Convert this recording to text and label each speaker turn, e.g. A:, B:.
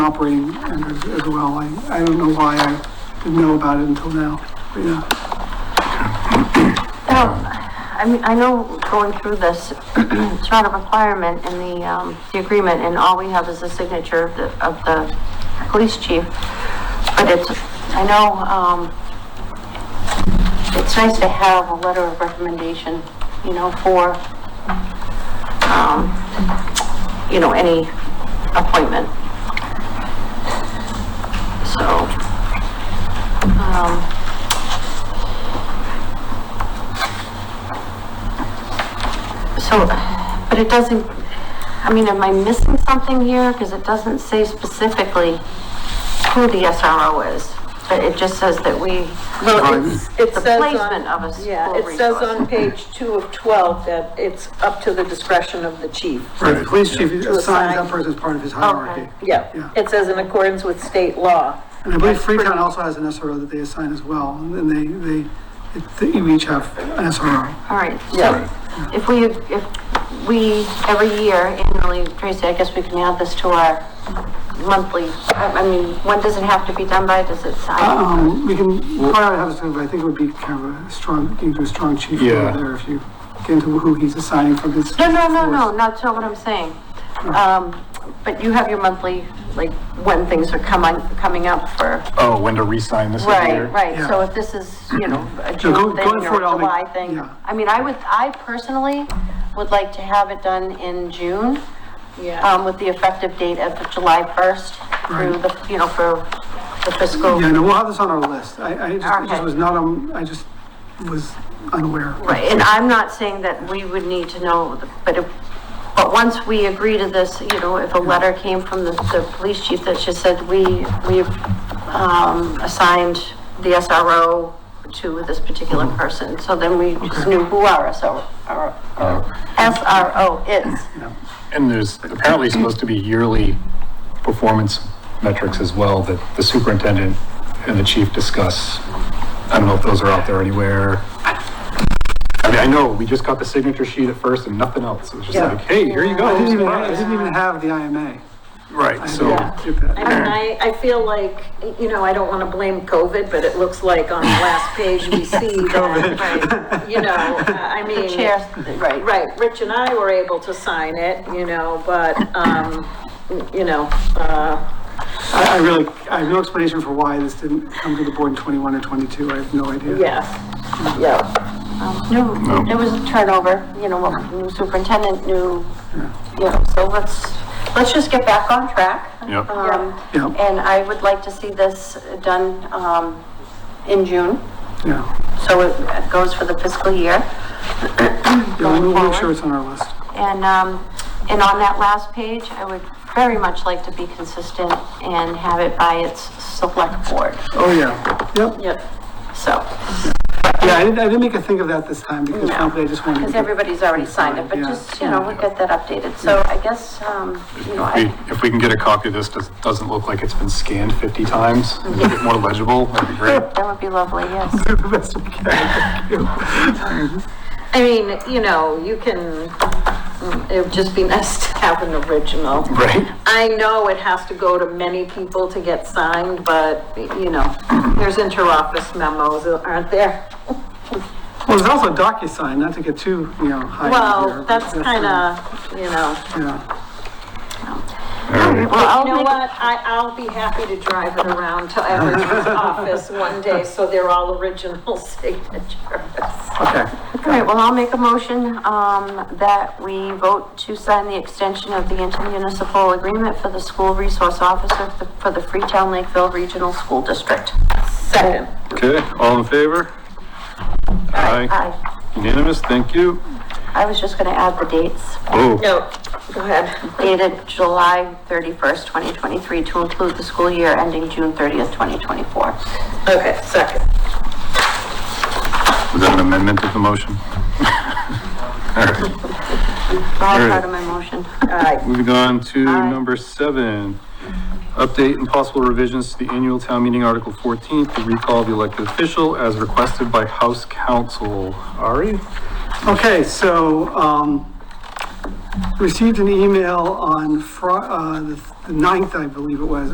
A: operating under as well. I, I don't know why I didn't know about it until now, but yeah.
B: Now, I mean, I know going through this, it's not a requirement in the, um, the agreement, and all we have is the signature of the, of the police chief. But it's, I know, um, it's nice to have a letter of recommendation, you know, for, um, you know, any appointment. So, um, So, but it doesn't, I mean, am I missing something here? Because it doesn't say specifically who the SRO is, but it just says that we,
C: Well, it's, it
B: the
C: says on.
B: placement of a
C: Yeah,
B: school
C: it says
B: resource.
C: on page two of twelve that it's up to the discretion of the chief.
A: Right, the police chief assigns that
C: assign.
A: person as part of his hierarchy. Yeah.
C: Yeah, it says in accordance with state law.
A: And I believe Freetown also has an SRO that they assign as well, and they, E they, they each have an SRO.
B: all right, so
C: Yeah.
B: if we, if we, every year annually, Tracy, I guess we can add this to our monthly, I I mean, when does it have to be done by? Does it sign?
A: Um, we can, probably have something, but I think it would be kind of a strong, you do a strong chief
D: Yeah.
A: over there if you get into who he's assigning from his.
B: No, no, no, no,
A: force.
B: not to what I'm saying. Um, but you have your monthly, like, when things are coming, coming up for
D: Oh, when to re-sign this every year?
B: Right, right, so
A: Yeah.
B: if this is, you know, a
A: go-
B: June thing or
A: going
B: a
A: forward, I'll make-
B: July thing,
A: yeah.
B: I mean, I would, I personally would like to have it done in June, um, with the effective date of July first through
A: Right.
B: the, you know, for the fiscal.
A: Yeah, no, we'll have this on our list. I, I just, it just
B: Okay.
A: was not, um, I just was unaware.
B: Right, and I'm not saying that we would need to know, the- but if, but once we agree to this, you know, if a letter came from the, the police chief that just said, we, we've, um, assigned the SRO to this particular person, so then we just knew who our SRO, our, SRO is.
D: And there's apparently supposed to be yearly performance metrics as well that the superintendent and the chief discuss. I don't know if those are out there anywhere. I mean, I know, we just got the signature sheet at first and nothing else. It was just
A: Yeah.
D: like, hey, here you
A: I didn't even,
D: go.
A: I didn't even have the IMA.
D: Right, so,
A: Yeah, get that.
C: I mean, I, I feel like, you know, I don't want to blame COVID, but it looks like on the last page we see that,
B: Right.
C: you know, I mean.
B: Chair, right,
C: Right, Rich and I were able to sign it, you know, but, um, you know, uh,
A: I, I really, I have no explanation for why this didn't come to the board in twenty-one or twenty-two. I have no idea.
C: yeah, yeah.
B: new, Um, there was a turnover, you know, a new superintendent, new, you know, so let's, let's just get back on track.
D: Yep.
B: Um,
A: Yeah.
B: and I would like to see this done, um, in June,
A: Yeah.
B: so it goes for the fiscal year.
A: Yeah,
B: going
A: we'll make sure
B: forward.
A: it's on our list.
B: And, um, and on that last page, I would very much like to be consistent and have it by its select board,
A: Oh, yeah, yep.
C: Yep.
B: so.
A: Yeah, I didn't, I didn't make a think of that this time because
B: No.
A: frankly, I just wanted to.
B: Because
A: get-
B: everybody's already signed it, but
A: Yeah.
B: just, you know, we'll get that updated, so I guess, um, you know, I.
D: we- if we can get a copy of this, does- doesn't look like it's been scanned 50 times, and make it more legible, that'd be great.
B: That would be lovely, yes.
A: Do the best we can, thank you.
C: I mean, you know, you can, mm, it would just be nice to have an original.
D: Right?
C: I know it has to go to many people to get signed, but, you know, there's inter-office memos, aren't there?
A: Well, there's also DocuSign, not to get too, you know, high. in here,
C: Well,
A: but
C: that's
A: uh,
C: kinda, you know.
A: Yeah,
B: Well, I'll
C: You know
B: make-
C: what, I, I'll be happy to drive it around to everyone's office one day, so they're all original signatures.
A: okay.
B: All right, well, I'll make a motion, um, that we vote to sign the extension of the intermunicipal agreement for the school resource officer for the- for the Freetown Lakeville Regional School District.
C: Second.
E: Okay, all in favor? Aye.
B: I,
E: Unanimous, thank you.
B: I was just gonna add the dates,
E: Oh,
C: No, go ahead.
B: dated July thirty-first, twenty twenty-three, to include the school year ending June thirtieth, twenty twenty-four.
C: Okay, second.
E: was that an amendment to the motion?
B: All
E: Alright.
B: part of my motion.
C: All right,
E: Moving on to
B: Aye.
E: number seven, update and possible revisions to the annual town meeting, Article 14, to recall the elected official as requested by House Counsel. Ari?
A: Okay, so, um, received an email on Fri- uh, the 9th, I believe it was,